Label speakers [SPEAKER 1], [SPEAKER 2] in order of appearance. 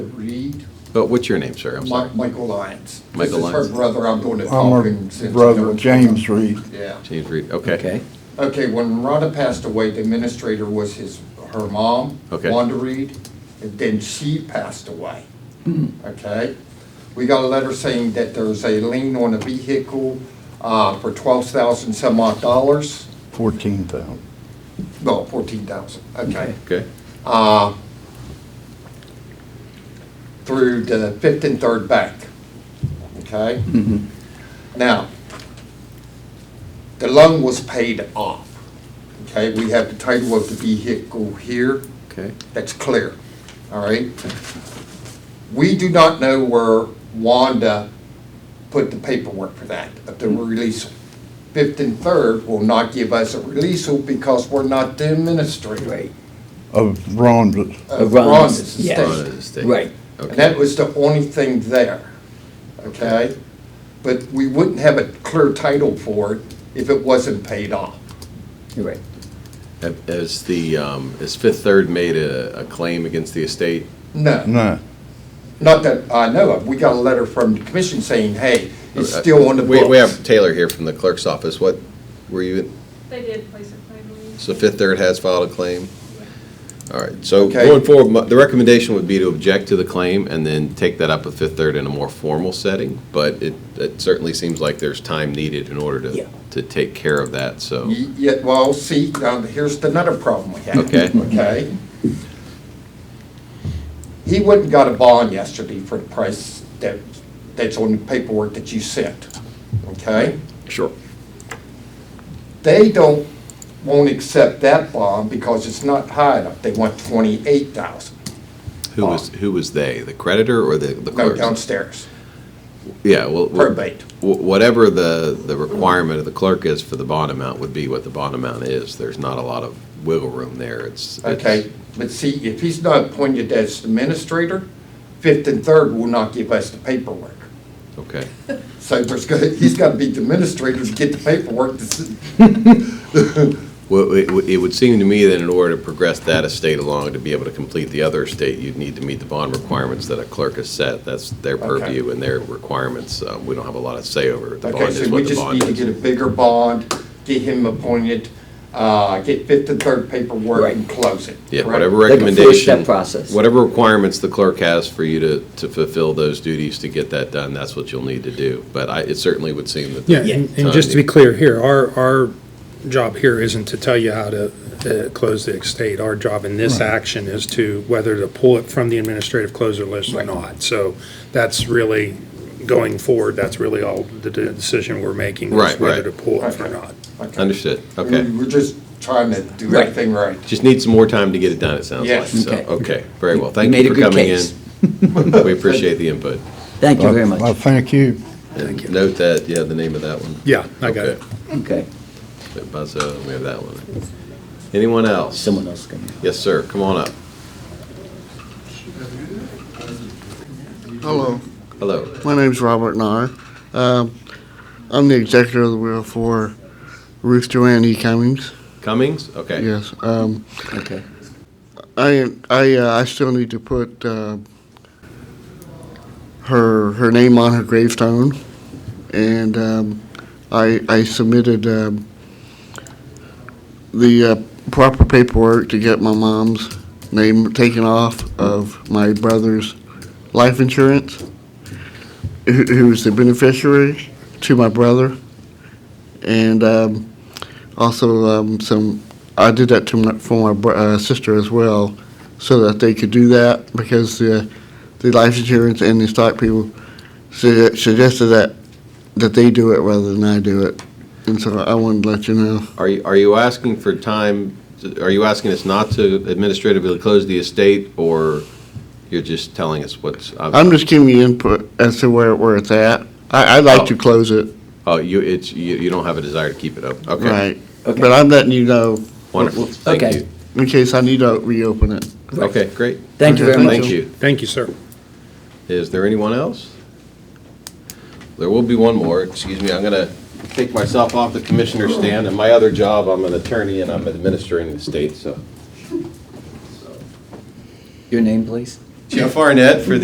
[SPEAKER 1] Reed,
[SPEAKER 2] Oh, what's your name, sir? I'm sorry.
[SPEAKER 1] Mi- Michael Lyons.
[SPEAKER 2] Michael
[SPEAKER 1] This
[SPEAKER 2] Lyons.
[SPEAKER 1] is her brother, I'm doing the
[SPEAKER 3] I'm
[SPEAKER 1] talking.
[SPEAKER 3] her
[SPEAKER 1] since I know
[SPEAKER 3] brother,
[SPEAKER 1] it's-
[SPEAKER 3] James Reed.
[SPEAKER 1] Yeah.
[SPEAKER 2] James Reed, okay.
[SPEAKER 1] Okay, when Rhonda passed away, the administrator was his, her mom,
[SPEAKER 2] Okay.
[SPEAKER 1] Wanda Reed, and then she passed away.
[SPEAKER 3] Hmm.
[SPEAKER 1] Okay? We got a letter saying that there's a lien on a vehicle uh, for twelve thousand some odd dollars,
[SPEAKER 3] Fourteen thousand.
[SPEAKER 1] no, fourteen thousand, okay?
[SPEAKER 2] Okay,
[SPEAKER 1] uh, through the Fifth and Third Bank, okay? Now, the loan was paid off, okay? We have the title of the vehicle here,
[SPEAKER 2] okay.
[SPEAKER 1] that's clear, all right? We do not know where Wanda put the paperwork for that, of the release. Fifth and Third will not give us a release because we're not the administrator.
[SPEAKER 4] Right,
[SPEAKER 3] Of Ron's,
[SPEAKER 1] of
[SPEAKER 4] Of Ron's,
[SPEAKER 1] Ron's
[SPEAKER 4] yes.
[SPEAKER 1] estate.
[SPEAKER 2] Rhonda Estate.
[SPEAKER 4] Right.
[SPEAKER 1] Uh, And
[SPEAKER 2] Okay,
[SPEAKER 1] that was the only thing there, okay? But we wouldn't have a clear title for it if it wasn't paid off.
[SPEAKER 4] you're right.
[SPEAKER 2] Have- has the, um, has Fifth Third made a, a claim against the estate?
[SPEAKER 1] No,
[SPEAKER 3] no,
[SPEAKER 1] not that I know of. We got a letter from the commission saying, hey, it's still on the
[SPEAKER 2] Uh, We,
[SPEAKER 1] books.
[SPEAKER 2] we have Taylor here from the clerk's office, what, were you,
[SPEAKER 5] They did place a claim on you.
[SPEAKER 2] so Fifth Third has filed a claim? All right, so
[SPEAKER 1] Okay.
[SPEAKER 2] going forward, my- the recommendation would be to object to the claim and then take that up with Fifth Third in a more formal setting, but it, it certainly seems like there's time needed in order
[SPEAKER 4] Yeah.
[SPEAKER 2] to, to take care of that, so.
[SPEAKER 1] Y- Yet, well, see, now here's another problem we have.
[SPEAKER 2] Okay.
[SPEAKER 1] Okay? He went and got a bond yesterday for the price that, that's on the paperwork that you sent, okay?
[SPEAKER 2] Sure.
[SPEAKER 1] They don't, won't accept that bond because it's not high enough. They want twenty-eight thousand.
[SPEAKER 2] Who was, who was they, the creditor or the, the
[SPEAKER 1] No,
[SPEAKER 2] clerk?
[SPEAKER 1] downstairs,
[SPEAKER 2] Yeah, well. well-
[SPEAKER 1] probate.
[SPEAKER 2] Wh- Whatever the, the requirement of the clerk is for the bond amount would be what the bond amount is. There's not a lot of wiggle room there. It's. it's-
[SPEAKER 1] Okay, but see, if he's not appointed as administrator, Fifth and Third will not give us the paperwork.
[SPEAKER 2] Okay,
[SPEAKER 1] So there's gonna, he's gotta be the administrator to get the paperwork to s-
[SPEAKER 2] well, it, would- it would seem to me that in order to progress that estate along, to be able to complete the other estate, you'd need to meet the bond requirements that a clerk has set. That's their
[SPEAKER 1] Okay.
[SPEAKER 2] purview and their requirements. Um, We don't have a lot of say over it. The
[SPEAKER 1] Okay,
[SPEAKER 2] bond
[SPEAKER 1] so
[SPEAKER 2] is
[SPEAKER 1] we
[SPEAKER 2] what the
[SPEAKER 1] just
[SPEAKER 2] bond
[SPEAKER 1] need to
[SPEAKER 2] is.
[SPEAKER 1] get a bigger bond, get him appointed, uh, get Fifth and Third paperwork and
[SPEAKER 4] Right.
[SPEAKER 1] close it.
[SPEAKER 2] Yeah,
[SPEAKER 1] correct?
[SPEAKER 2] whatever
[SPEAKER 4] Like a
[SPEAKER 2] recommendation.
[SPEAKER 4] four-step process.
[SPEAKER 2] Whatever requirements the clerk has for you to, to fulfill those duties to get that done, that's what you'll need to do. But I, it certainly would seem that. the
[SPEAKER 6] Yeah, and and just to be clear here, our, our job here isn't to tell you how to uh, close the estate. Our job in this action is to whether to pull it from the administrative closure list or not. So that's really, going forward, that's really all the de- decision we're making. is
[SPEAKER 2] Right,
[SPEAKER 6] Whether to
[SPEAKER 2] right.
[SPEAKER 6] pull it or
[SPEAKER 1] Okay.
[SPEAKER 6] not.
[SPEAKER 2] Understood,
[SPEAKER 1] We-
[SPEAKER 2] okay.
[SPEAKER 1] We're just trying to do
[SPEAKER 4] Right.
[SPEAKER 1] everything right.
[SPEAKER 2] Just need some more time to get it done, it sounds like.
[SPEAKER 1] Yes.
[SPEAKER 2] So,
[SPEAKER 4] Okay.
[SPEAKER 2] okay, very well. Thank
[SPEAKER 4] made
[SPEAKER 2] you
[SPEAKER 4] a
[SPEAKER 2] for
[SPEAKER 4] good
[SPEAKER 2] coming
[SPEAKER 4] case.
[SPEAKER 2] in. We appreciate the input.
[SPEAKER 4] Thank you very much.
[SPEAKER 3] I thank you.
[SPEAKER 2] And note that, yeah, the name of that one.
[SPEAKER 6] Yeah, I got
[SPEAKER 2] Okay.
[SPEAKER 6] it.
[SPEAKER 4] Okay,
[SPEAKER 2] So Buzzo, we have that one. Anyone else?
[SPEAKER 4] someone else can.
[SPEAKER 2] Yes, sir, come on up.
[SPEAKER 7] Hello,
[SPEAKER 2] Hello.
[SPEAKER 7] my name's Robert Nahr. Um, I'm the executor of the will for Ruth Joanne E. Cummings.
[SPEAKER 2] Cummings? Okay.
[SPEAKER 7] Yes, um,
[SPEAKER 4] Okay,
[SPEAKER 7] I, I, uh, I still need to put, uh, her, her name on her gravestone. And, um, I, I submitted, um, the, uh, proper paperwork to get my mom's name taken off of my brother's life insurance, who, who was the beneficiary to my brother. And, um, also um, some I did that to my, for my br- uh, sister as well, so that they could do that because the the life insurance and the stock people su- suggested that that they do it rather than I do it, and so I wanted to let you know.
[SPEAKER 2] Are you, are you asking for time, to- are you asking us not to administratively close the estate, or you're just telling us what's?
[SPEAKER 7] I'm just giving you input as to where where it's at. I, I'd like to
[SPEAKER 2] Oh.
[SPEAKER 7] close it,
[SPEAKER 2] Oh, you, it's, you, you don't have a desire to keep it open? Okay.
[SPEAKER 7] right?
[SPEAKER 4] Okay.
[SPEAKER 7] But I'm letting you know
[SPEAKER 2] Wonderful, thank
[SPEAKER 4] Okay.
[SPEAKER 2] you.
[SPEAKER 7] in case I need to reopen it.
[SPEAKER 2] Okay, great.
[SPEAKER 4] thank you
[SPEAKER 7] Okay,
[SPEAKER 4] very much.
[SPEAKER 2] Thank you.
[SPEAKER 6] Thank you, sir.
[SPEAKER 2] Is there anyone else? There will be one more, excuse me, I'm going to take myself off the commissioner's stand, and my other job, I'm an attorney and I'm administering the state, so.
[SPEAKER 4] Your name, please?
[SPEAKER 2] Jeff Arnett for the